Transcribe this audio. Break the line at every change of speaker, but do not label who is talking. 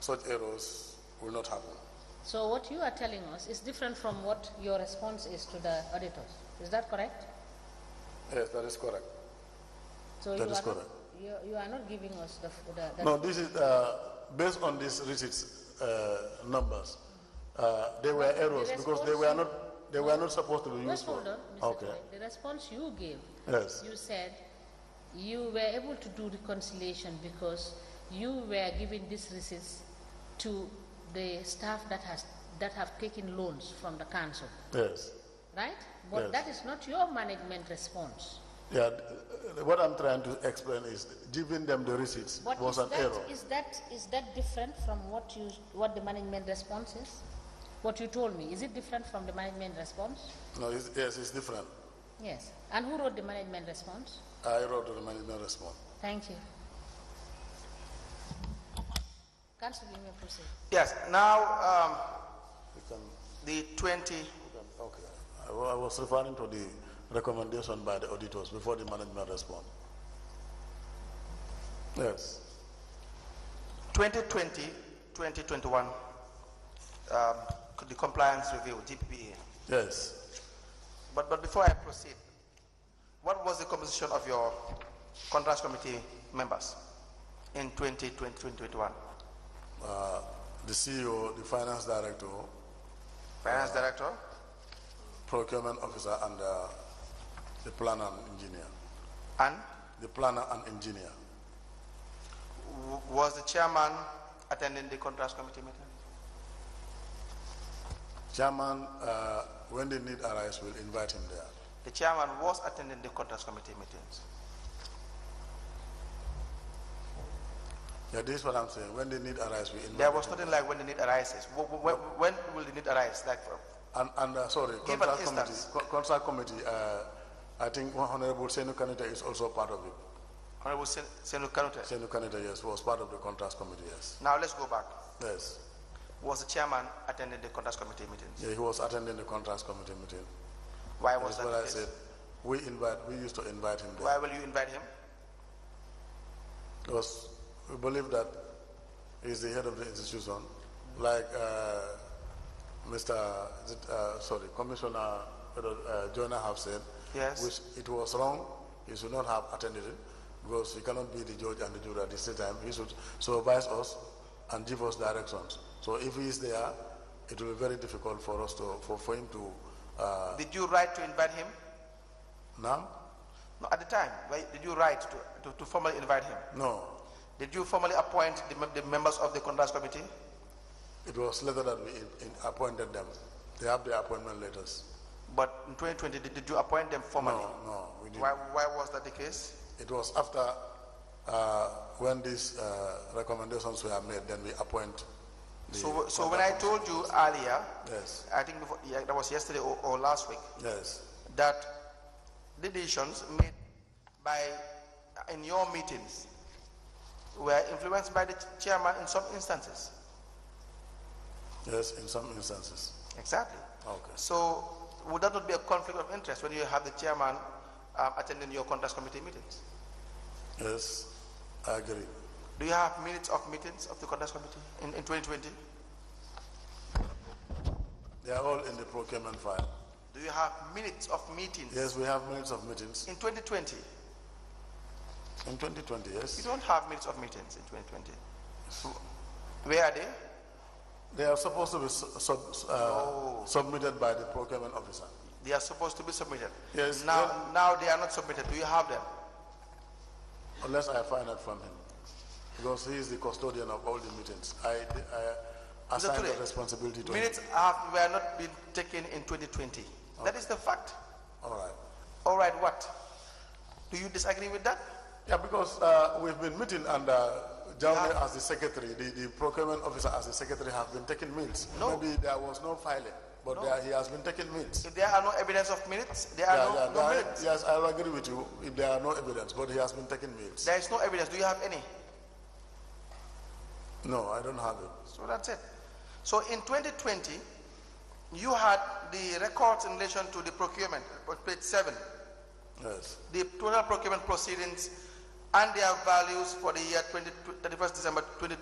such errors will not happen.
So what you are telling us is different from what your response is to the auditors. Is that correct?
Yes, that is correct.
So
That
you
is
are not-
correct.
You, you are not giving us the, f- the, the
No, this is, uh, based on these receipts, uh, numbers, uh, there were errors because they were not, they were not supposed to be used
Just
for.
hold on, Mr.
Okay,
Choi. The response you gave,
yes,
you said you were able to do reconciliation because you were giving these receipts to the staff that has, that have taken loans from the council,
yes.
right? But
Yes.
that is not your management response.
Yeah, uh, what I'm trying to explain is giving them the receipts
But
was
is
an
that-
error.
Is that, is that different from what you, what the management response is? What you told me, is it different from the management response?
No, it's, yes, it's different.
Yes. And who wrote the management response?
I wrote the management response.
Thank you. Council, you may proceed.
Yes, now, um,
You can,
the twenty,
you can, okay. I wa- I was referring to the recommendation by the auditors before the management response. Yes,
twenty twenty, twenty twenty-one, um, the compliance review, GPPA.
yes.
But, but before I proceed, what was the composition of your contrast committee members in twenty twenty, twenty twenty-one?
Uh, the CEO, the finance director,
Finance director,
procurement officer, and uh, the planner and engineer.
and
The planner and engineer.
w- was the chairman attending the contrast committee meeting?
Chairman, uh, when the need arise, we'll invite him there.
The chairman was attending the contrast committee meetings.
Yeah, this is what I'm saying. When the need arise, we invite.
There was
him.
nothing like when the need arises. Wh- wh- When, when will the need arise, like for
And, and uh, sorry,
Give an
contract committee,
instance.
co- contract committee, uh, I think Honorable Senu Kanita is also part of it.
Honorable Sen- Senator Kanute?
Senu Kanita, yes, was part of the contract committee, yes.
Now let's go back.
Yes.
Was the chairman attending the contrast committee meetings?
Yeah, he was attending the contract committee meeting.
Why
That's
was that
what
the
I
case?
said. We invite, we used to invite him there
Why will you invite him?
because we believe that he's the head of the institution. Like, uh, Mr., is it, uh, sorry, Commissioner uh, Joyner have said.
Yes.
Which it was wrong, he should not have attended it, because he cannot be the judge and the jury at the same time. He should supervise us and give us directions. So if he is there, it will be very difficult for us to, for, for him to, uh,
Did you write to invite him?
now?
No, at the time, why- did you write to, to, to formally invite him?
No,
Did you formally appoint the, mem- the members of the contrast committee?
it was later that we in- in- appointed them. They have their appointment letters.
But in 2020, did, did you appoint them formally?
No, no, we didn't.
Why, why was that the case?
It was after, uh, when these, uh, recommendations were made, then we appoint the.
So, so when I told you earlier,
Yes,
I think before, yeah, that was yesterday or, or last week,
yes,
that the decisions made by, in your meetings were influenced by the ch- chairman in some instances.
yes, in some instances.
Exactly.
Okay.
So would that not be a conflict of interest when you have the chairman um, attending your contrast committee meetings?
Yes, I agree.
Do you have minutes of meetings of the contrast committee in, in 2020?
They are all in the procurement file.
Do you have minutes of meetings
Yes, we have minutes of meetings
in 2020?
in 2020,
You
yes.
don't have minutes of meetings in 2020. Where are they?
They are supposed to be su- sub- uh, submitted by the procurement officer.
They are supposed to be submitted.
Yes,
Now, now they are not submitted. Do you have them?
Unless I find out from him, because he is the custodian of all the meetings. I, I assign the
Ture,
responsibility to him.
Minutes have, were not been taken in 2020. That is the fact.
All right.
All right, what? Do you disagree with that?
Yeah, because uh, we've been meeting and uh, Jaume as the secretary, the, the procurement officer as the secretary have been taking minutes.
No.
Maybe there was no filing, but there, he has been taking minutes.
If there are no evidence of minutes, there are
Yeah,
no,
yeah,
no
there are-
minutes.
yes, I agree with you. If there are no evidence, but he has been taking minutes.
There is no evidence. Do you have any?
No, I don't have it.
So that's it. So in 2020, you had the records in relation to the procurement, on page seven,
Yes,
the total procurement proceedings and their values for the year 20 31st December 2020.